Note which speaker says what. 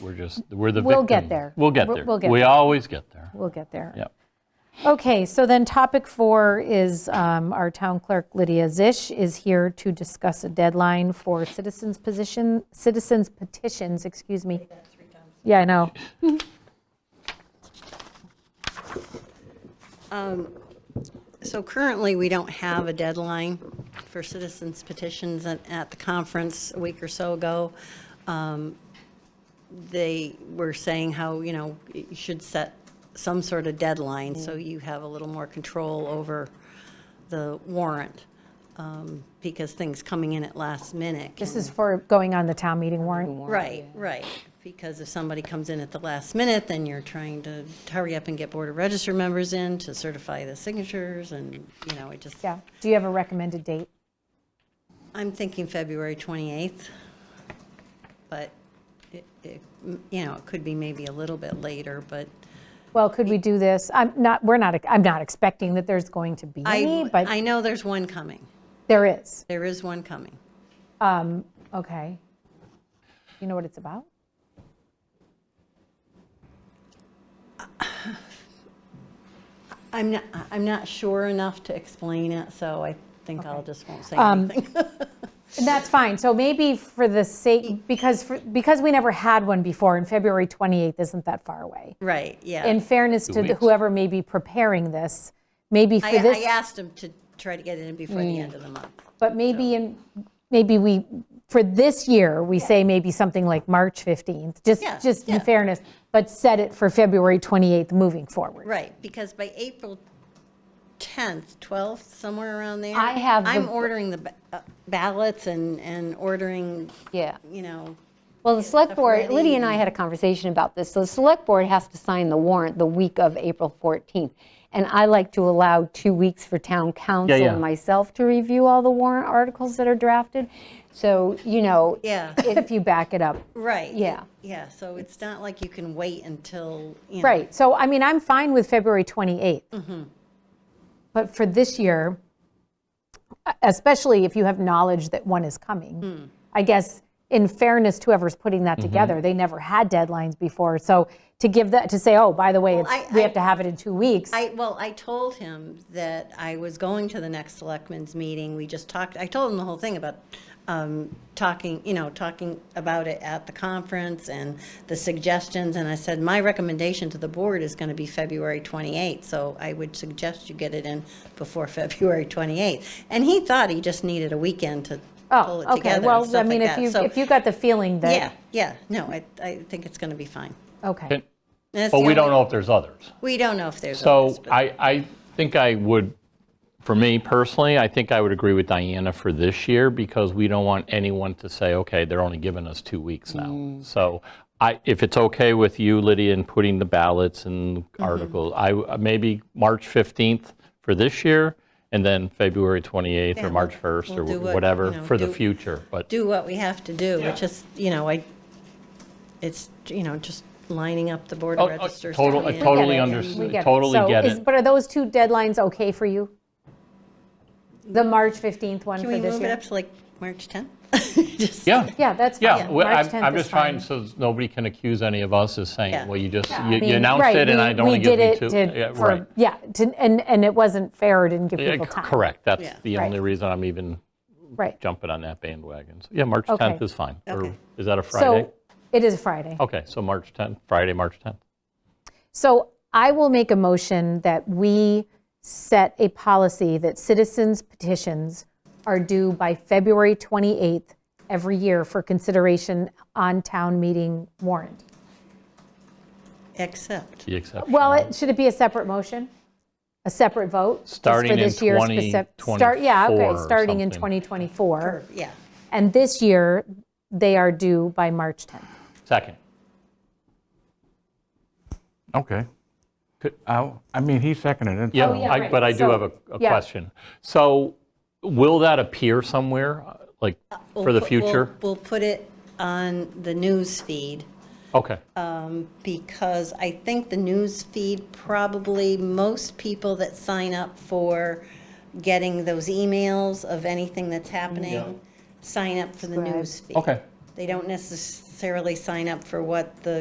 Speaker 1: We're just, we're the victim.
Speaker 2: We'll get there.
Speaker 1: We'll get
Speaker 2: We'll-
Speaker 1: there.
Speaker 2: we'll get
Speaker 1: We
Speaker 2: there.
Speaker 1: always get there.
Speaker 2: We'll get there.
Speaker 1: Yep.
Speaker 2: Okay, so then topic four is um, our town clerk Lydia Zish is here to discuss a deadline for citizens position, citizens petitions, excuse me. Yeah, I know.
Speaker 3: So currently, we don't have a deadline for citizens petitions at, at the conference a week or so ago. um, They were saying how, you know, you should set some sort of deadline so you have a little more control over the warrant um, because things coming in at last minute.
Speaker 2: This is for going on the town meeting warrant.
Speaker 3: Right, right. Because if somebody comes in at the last minute, then you're trying to hurry up and get Board of Register members in to certify the signatures and, you know, it just.
Speaker 2: Yeah. Do you have a recommended date?
Speaker 3: I'm thinking February 28th, but it, it- you know, it could be maybe a little bit later, but
Speaker 2: Well, could we do this? I'm not, we're not, I'm not expecting that there's going to be any,
Speaker 3: I,
Speaker 2: but
Speaker 3: I know there's one coming.
Speaker 2: there is.
Speaker 3: There is one coming.
Speaker 2: Okay. You know what it's about?
Speaker 3: I'm not, I'm not sure enough to explain it, so I think I'll just won't say
Speaker 2: Um,
Speaker 3: anything.
Speaker 2: And That's fine. So maybe for the sake, because, for- because we never had one before, and February 28th isn't that far away.
Speaker 3: Right, yeah.
Speaker 2: In fairness
Speaker 1: Two
Speaker 2: to the-
Speaker 1: weeks.
Speaker 2: whoever may be preparing this, maybe
Speaker 3: I,
Speaker 2: for
Speaker 3: I
Speaker 2: this, Mm.
Speaker 3: asked him to try to get it in before the end of the month.
Speaker 2: but maybe in, maybe we, for this year, we say maybe something like March 15th, just,
Speaker 3: Yeah,
Speaker 2: just
Speaker 3: yeah.
Speaker 2: in fairness, but set it for February 28th moving forward.
Speaker 3: Right, because by April 10th, 12th, somewhere around there.
Speaker 4: I have the-
Speaker 3: I'm ordering the ba- uh, ballots and, and ordering,
Speaker 4: Yeah.
Speaker 3: you know,
Speaker 4: Well, the select board,
Speaker 3: ready
Speaker 4: Lydia and I had a conversation about this. So the select board has to sign the warrant the week of April 14th. And I like to allow two weeks for town council
Speaker 1: yeah.
Speaker 4: and myself to review all the warrant articles that are drafted. So, you know,
Speaker 3: yeah.
Speaker 2: If you back it up.
Speaker 3: Right.
Speaker 4: Yeah.
Speaker 3: Yeah, so it's not like you can wait until, you know.
Speaker 2: Right, so I mean, I'm fine with February 28th.
Speaker 3: Mm-hmm.
Speaker 2: But for this year, e, especially if you have knowledge that one is
Speaker 3: Hmm.
Speaker 2: coming, I guess in fairness to whoever's putting
Speaker 1: Mm-hmm.
Speaker 2: that together, they never had deadlines before. So to give that, to say, oh, by the way, it's-
Speaker 3: I-
Speaker 2: we
Speaker 3: I-
Speaker 2: have to have it in two weeks.
Speaker 3: I, well, I told him that I was going to the next selectmen's meeting. We just talked, I told him the whole thing about um, talking, you know, talking about it at the conference and the suggestions. And I said, my recommendation to the board is going to be February 28th. So I would suggest you get it in before February 28th. And he thought he just needed a weekend to pull
Speaker 2: Oh,
Speaker 3: it
Speaker 2: okay,
Speaker 3: together and
Speaker 2: well, I
Speaker 3: stuff
Speaker 2: mean,
Speaker 3: like
Speaker 2: if
Speaker 3: that.
Speaker 2: you,
Speaker 3: So,
Speaker 2: if you got the feeling
Speaker 3: yeah,
Speaker 2: that,
Speaker 3: yeah, no, I, I think it's going to be fine.
Speaker 2: okay.
Speaker 3: And it's
Speaker 1: But
Speaker 3: the
Speaker 1: we don't
Speaker 3: only-
Speaker 1: know if there's others.
Speaker 3: We don't know if there's others,
Speaker 1: So
Speaker 3: but-
Speaker 1: I, I think I would, for me personally, I think I would agree with Diana for this year because we don't want anyone to say, okay, they're only giving us two weeks now.
Speaker 3: Mm.
Speaker 1: So I, if it's okay with you, Lydia, in putting the ballots and
Speaker 2: Mm-hmm.
Speaker 1: articles, I, w- maybe March 15th for this year and then February 28th
Speaker 3: Yeah,
Speaker 1: or March
Speaker 3: we'll-
Speaker 1: 1st or
Speaker 3: we'll do
Speaker 1: wh-
Speaker 3: what,
Speaker 1: whatever
Speaker 3: you know,
Speaker 1: for the
Speaker 3: do-
Speaker 1: future, but.
Speaker 3: do what we have to do. It's just, you know, I, it's, you know, just lining up the board
Speaker 1: Oh,
Speaker 3: of
Speaker 1: oh,
Speaker 3: registers.
Speaker 1: total-
Speaker 3: coming in.
Speaker 1: I totally
Speaker 2: Get it.
Speaker 1: under-
Speaker 2: We get it.
Speaker 1: totally
Speaker 2: So
Speaker 1: get
Speaker 2: is-
Speaker 1: it.
Speaker 2: But are those two deadlines okay for you? The March 15th one for this
Speaker 3: Can we
Speaker 2: year?
Speaker 3: move it up to like March 10th? Just-
Speaker 1: Yeah.
Speaker 2: Yeah, that's fine.
Speaker 1: Yeah, well, I'm,
Speaker 2: March 10th
Speaker 1: I'm
Speaker 2: is
Speaker 1: just trying
Speaker 2: fine.
Speaker 1: so nobody can accuse any of us of
Speaker 3: Yeah.
Speaker 1: saying, well, you just, you-
Speaker 2: I
Speaker 1: you
Speaker 2: mean,
Speaker 1: announced
Speaker 2: right,
Speaker 1: it and
Speaker 2: we-
Speaker 1: I don't want to give you two.
Speaker 2: We did
Speaker 1: Yeah,
Speaker 2: it to,
Speaker 1: right.
Speaker 2: for, yeah, to- and, and it wasn't fair, it didn't give
Speaker 1: Yeah,
Speaker 2: people
Speaker 1: c-
Speaker 2: time.
Speaker 1: Correct, that's
Speaker 3: Yeah.
Speaker 1: the
Speaker 2: Right.
Speaker 1: only reason I'm even
Speaker 2: Right.
Speaker 1: jumping on that bandwagon. So, Yeah, March
Speaker 2: Okay.
Speaker 1: 10th is fine. Or
Speaker 3: Okay.
Speaker 1: Is that a Friday?
Speaker 2: So it is Friday.
Speaker 1: Okay, so March 10th, Friday, March 10th.
Speaker 2: So I will make a motion that we set a policy that citizens petitions are due by February 28th every year for consideration on town meeting warrant.
Speaker 3: Except,
Speaker 1: The exception.
Speaker 2: Well, it- should it be a separate motion? A separate vote? Just for
Speaker 1: Starting in
Speaker 2: this year's specif- start- Yeah,
Speaker 1: 2024 or
Speaker 2: okay, starting in
Speaker 1: something.
Speaker 2: 2024.
Speaker 3: yeah,
Speaker 2: And this year, they are due by March 10th.
Speaker 1: Second.
Speaker 2: Oh,
Speaker 5: Okay. I, I mean, he seconded it.
Speaker 1: Yeah,
Speaker 5: so-
Speaker 2: yeah,
Speaker 1: I-
Speaker 2: right.
Speaker 1: but I do
Speaker 2: So-
Speaker 1: have a a
Speaker 2: yeah.
Speaker 1: question. So will that appear somewhere, uh, like, for
Speaker 3: We'll
Speaker 1: the
Speaker 3: put- we'll-
Speaker 1: future?
Speaker 3: We'll put it on the news feed
Speaker 1: Okay,
Speaker 3: because I think the news feed probably most people that sign up for getting those emails of anything that's happening sign up for the news feed.
Speaker 1: okay.
Speaker 3: They don't necessarily necessarily sign up for what the